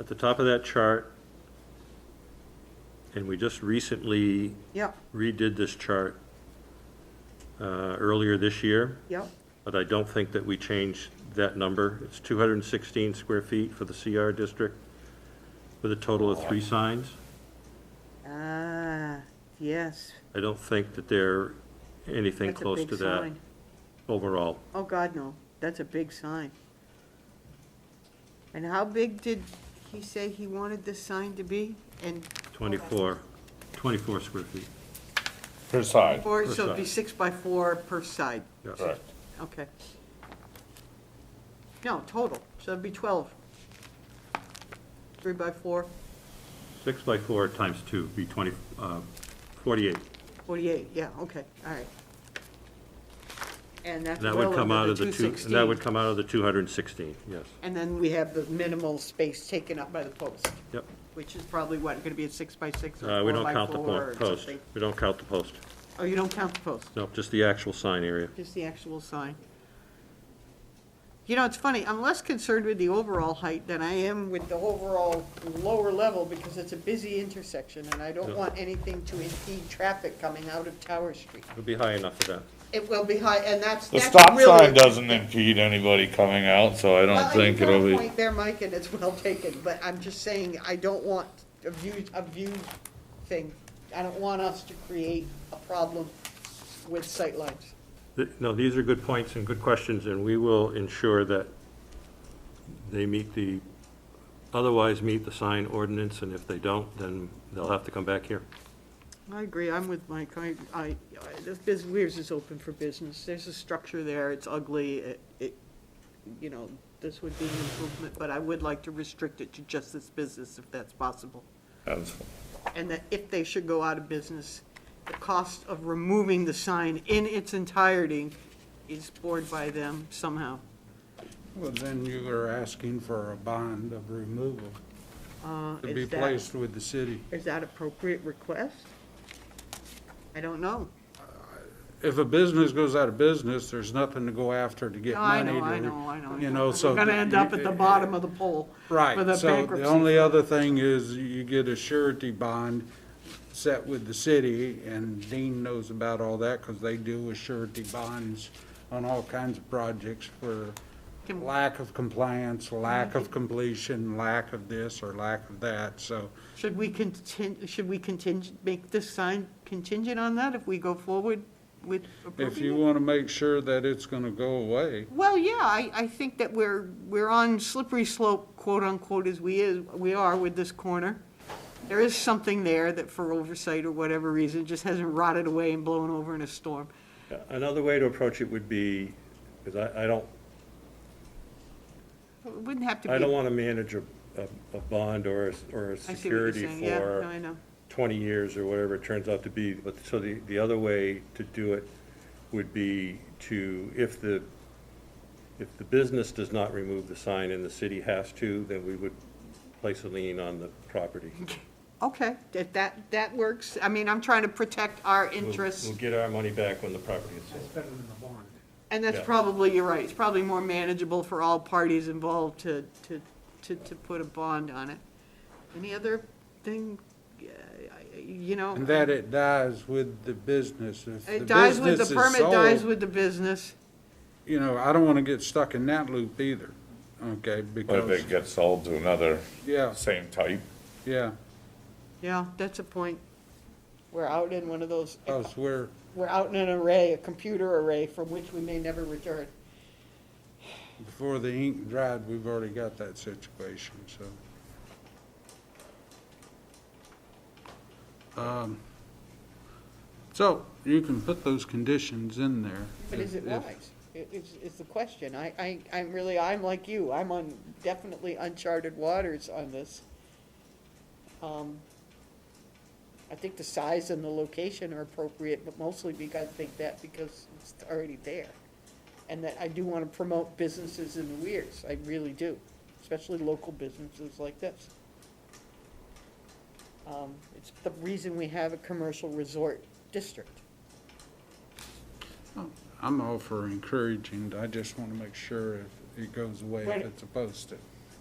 at the top of that chart, and we just recently Yep, redid this chart uh, earlier this year, yep, but I don't think that we changed that number. It's 216 square feet for the CR district with a total of three signs. ah, yes. I don't think that they're anything That's a close big to that sign. overall. Oh, God, no, that's a big sign. And how big did he say he wanted this sign to be? And 24, 24 square feet, Per side, four, so it'd be side. six by four per side, yes. correct. okay. No, total, so it'd be twelve. Three by four, Six by four times two would be 20, uh, 48. forty-eight, yeah, okay, all right. And that's And that would well come out under of the the two two, and sixteen. that would come out of the 216, yes. And then we have the minimal space taken up by the post. Yep. Which is probably what, gonna be a six by six or Uh, We four don't by count the four po- or post. something? We don't count the post. Oh, you don't count the post, No, just the actual sign area. just the actual sign. You know, it's funny, I'm less concerned with the overall height than I am with the overall lower level because it's a busy intersection and I don't Yeah. want anything to impede traffic coming out of Tower Street. It'll be high enough for that. It will be high, and that's, The that's really. stop sign doesn't impede anybody coming out, so I Well, don't I you've think got a it'll be. Point there, Mike, and it's well taken, but I'm just saying, I don't want a view, a view thing. I don't want us to create a problem with sightlines. Th- No, these are good points and good questions, and we will ensure that they meet the, otherwise meet the sign ordinance, and if they don't, then they'll have to come back here. I agree, I'm with Mike, I, I, I- this Biz Weirs is open for business, there's a structure there, it's ugly, it, it, you know, this would be an improvement, but I would like to restrict it to just this business if that's possible. That's- and that if they should go out of business, the cost of removing the sign in its entirety is borne by them somehow. Well, then you are asking for a bond of removal Uh, to is be that- placed with the city. Is that appropriate request? I don't know. If a business goes out of business, there's nothing to go after to get No, Oh, I money. know, I to- know, I know. You know, so. We're gonna that end you- up at the bottom of the pole. for Right, so the bankruptcy. only other thing is you get a surety bond set with the city, and Dean knows about all that, because they do a surety bonds on all kinds of projects for Can- lack of compliance, lack of completion, lack of this or lack of that, so. Should we contingent, should we contingent, make this sign contingent on that if we go forward with approving If you it? want to make sure that it's going to go away, Well, yeah, I, I think that we're, we're on slippery slope, quote unquote, as we is, we are with this corner. There is something there that for oversight or whatever reason, just hasn't rotted away and blown over in a storm. Another way to approach it would be, because I, I don't, It wouldn't have to be. I don't want to manage a, a- a bond or, a s- or a I see what you're security saying. Yeah, no, I for know. 20 years or whatever it turns out to be. But, so the, the other way to do it would be to, if the, if the business does not remove the sign and the city has to, then we would place a lien on the property. Okay, that, that, that works. I mean, I'm trying to protect our We'll- interests. We'll get our money back when the property is sold. And that's Yeah. probably, you're right, it's probably more manageable for all parties involved to, to, to, to put a bond on it. Any other thing, uh, I- I- you know? and that it dies with the business. If the It dies with, business the is permit dies sold, with the business. You know, I don't want to get stuck in that loop either, But okay, if because, it gets sold to another yeah, same type, yeah, Yeah, that's a point. We're out in one of those, because we're, we're out in an array, a computer array from which we may never return. before the ink dried, we've already got that situation, so. Um, So, you can put those conditions in there. But is it if- if- wise? I- Is, is the question. I, I, I'm really, I'm like you. I'm on definitely uncharted waters on this. Um, I think the size and the location are appropriate, but mostly because, I think that because it's already there. And that I do want to promote businesses in the Weirs. I really do, especially local businesses like this. Um, It's the reason we have a commercial resort district. I'm all for encouraging, I just want to make sure if it goes away, Right. if it's supposed to.